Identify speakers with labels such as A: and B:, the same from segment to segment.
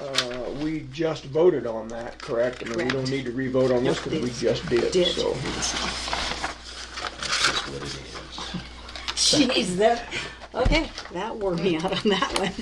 A: Uh, we just voted on that, correct? I mean, we don't
B: Correct.
A: need to re-vote on this
B: Nope,
A: because we
B: this
A: just did,
B: Did.
A: so.
C: That's just what it is.
B: Jeez, that, okay, that wore me out on that one.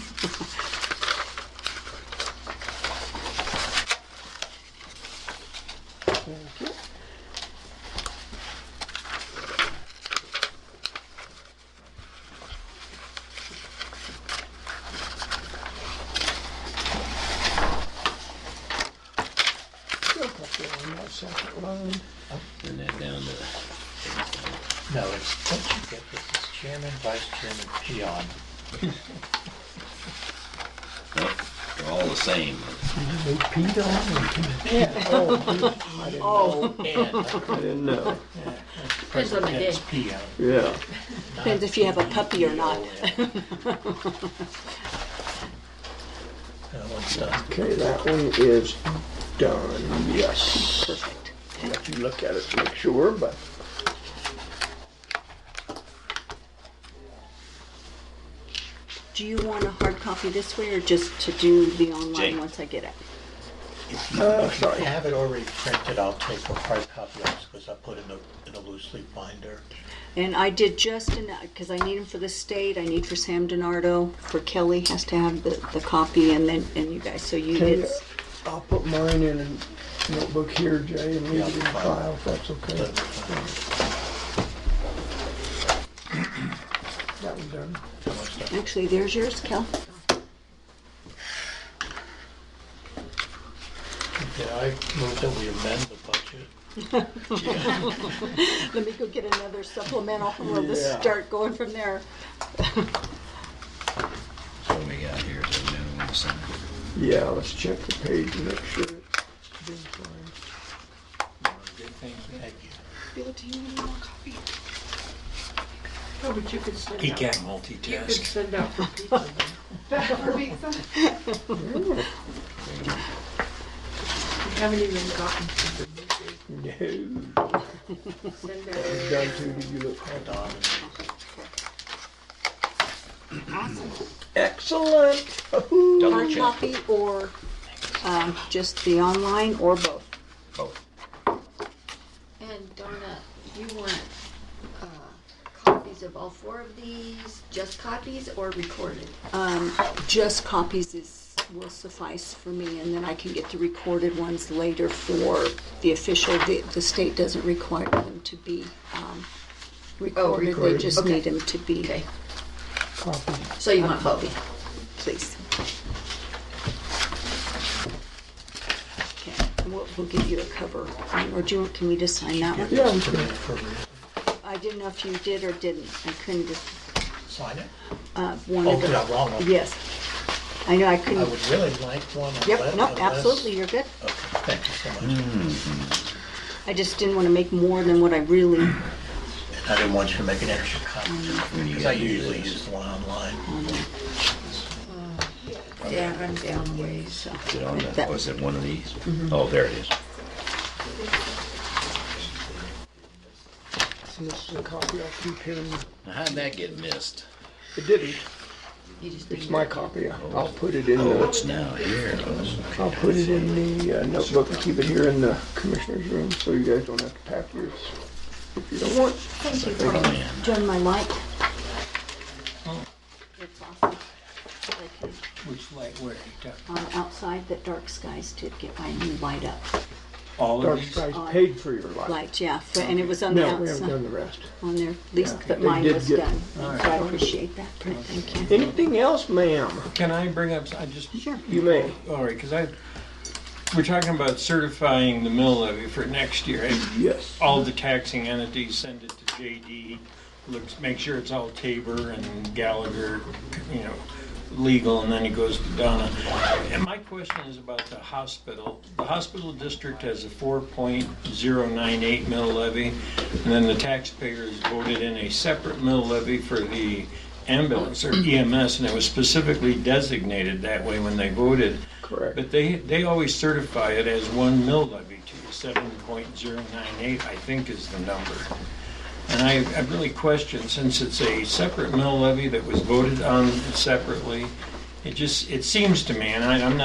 A: Still up there on that second line.
C: And that down to.
D: No, it's, once you get this, it's chairman, vice chairman, peon.
C: Nope, they're all the same.
D: They peed on me.
B: Oh,
A: I didn't know.
E: Depends on the day.
D: It's peon.
A: Yeah.
B: depends if you have a puppy or not.
D: And what's that?
A: Okay, that one is done, yes.
B: Perfect.
A: I'll Let you look at it to make sure, but.
B: Do you want a hard copy this way or just to do the
C: Jane.
B: online once I get it?
A: Uh,
D: If you
A: sorry.
D: have it already printed, I'll take a hard copy of this because I put it in a, in a loose leaf binder.
B: And I did just enough, because I need them for the state, I need for Sam DiNardo, for Kelly has to have the, the copy and then, and you guys, so you,
A: Okay,
B: it's,
A: I'll put mine in a notebook here, Jay, and leave it in the file if that's okay.
D: But, uh,
A: That one's done.
B: actually, there's yours, Kel.
D: Did I move that we amend the budget?
B: Let me go get another supplemental, we'll just
A: Yeah.
B: start going from there.
C: So what we got here is a minimum of some.
A: Yeah, let's check the page and make sure it's been signed.
D: Thank you.
E: Bill, do you need more copy? No, but you could send out. You could
D: multitask.
E: send out for pizza. For pizza? We haven't even gotten to the meeting.
A: No,
E: Send out.
A: done too, did you look?
D: Don,
A: Excellent. Woo-hoo.
C: Double
B: Hard
C: check
B: copy or, um, just the online or both?
C: both.
F: And Donna, you want uh, copies of all four of these, just copies or recorded?
B: Um, just copies is, will suffice for me, and then I can get the recorded ones later for the official, the, the state doesn't require them to be, um, recorded, they
A: recorded.
B: just
F: Okay.
B: need them to be,
F: Okay,
A: Copy.
F: so you want Bobby?
B: please. Okay, and we'll, we'll give you a cover, or do you, want- can we just sign that one?
A: Yeah, we
D: for
A: can.
D: me, for me.
B: I didn't know if you did or didn't, I couldn't, just,
D: Sign it?
B: uh, one
D: Oh,
B: of
D: did I
B: the,
D: wrong one?
B: yes. I know, I
D: I
B: couldn't,
D: would really like one.
B: yep,
D: unless-
B: no,
D: unless-
B: absolutely, you're good.
D: Okay, thank you so much.
B: I just didn't want to make more than what I really,
D: And I didn't want you to make an extra copy, because I
C: gotta use
D: usually
C: it.
D: use the one online.
F: Yeah, I'm down ways.
B: so.
C: Is it on the,
B: That-
C: was it one of these? Oh, there it is.
A: And This is a copy I'll keep here.
C: Now how'd that get missed?
A: It didn't.
F: You just
A: It's
F: need
A: my copy. I'll put it in
C: Oh,
A: the,
C: it's now here. Oh,
A: I'll put it in the uh, notebook and keep it here in the commissioner's room so you guys don't have to pack yours if you don't want.
C: man.
B: Join my light. It's awesome. I can-
D: Which light, where?
B: On outside, that dark skies did get my new light up.
D: All
A: Dark Skies paid for your life.
B: Light, yeah, for- and it was on the
A: No, we haven't done
B: outside,
A: the rest.
B: on there, at least,
A: Yeah,
B: but
A: they
B: mine
A: did
B: was
A: get-
B: done. So I appreciate that, Brent, thank you.
A: Anything else, ma'am?
G: Can I bring up, I just,
B: Sure.
A: You may.
G: all right, because I, we're talking about certifying the mill levy for next year. and
A: Yes.
G: All the taxing entities send it to JD, looks, make sure it's all Tabor and Gallagher, you know, legal, and then it goes to Donna. And my question is about the hospital. The hospital district has a four point zero nine eight mill levy, and then the taxpayers voted in a separate mill levy for the ambulance or EMS, and it was specifically designated that way when they voted.
A: Correct.
G: But they, they always certify it as one mill levy to you, seven point zero nine eight, I think is the number. And I, I really question, since it's a separate mill levy that was voted on separately, it just, it seems to me, and I, I'm not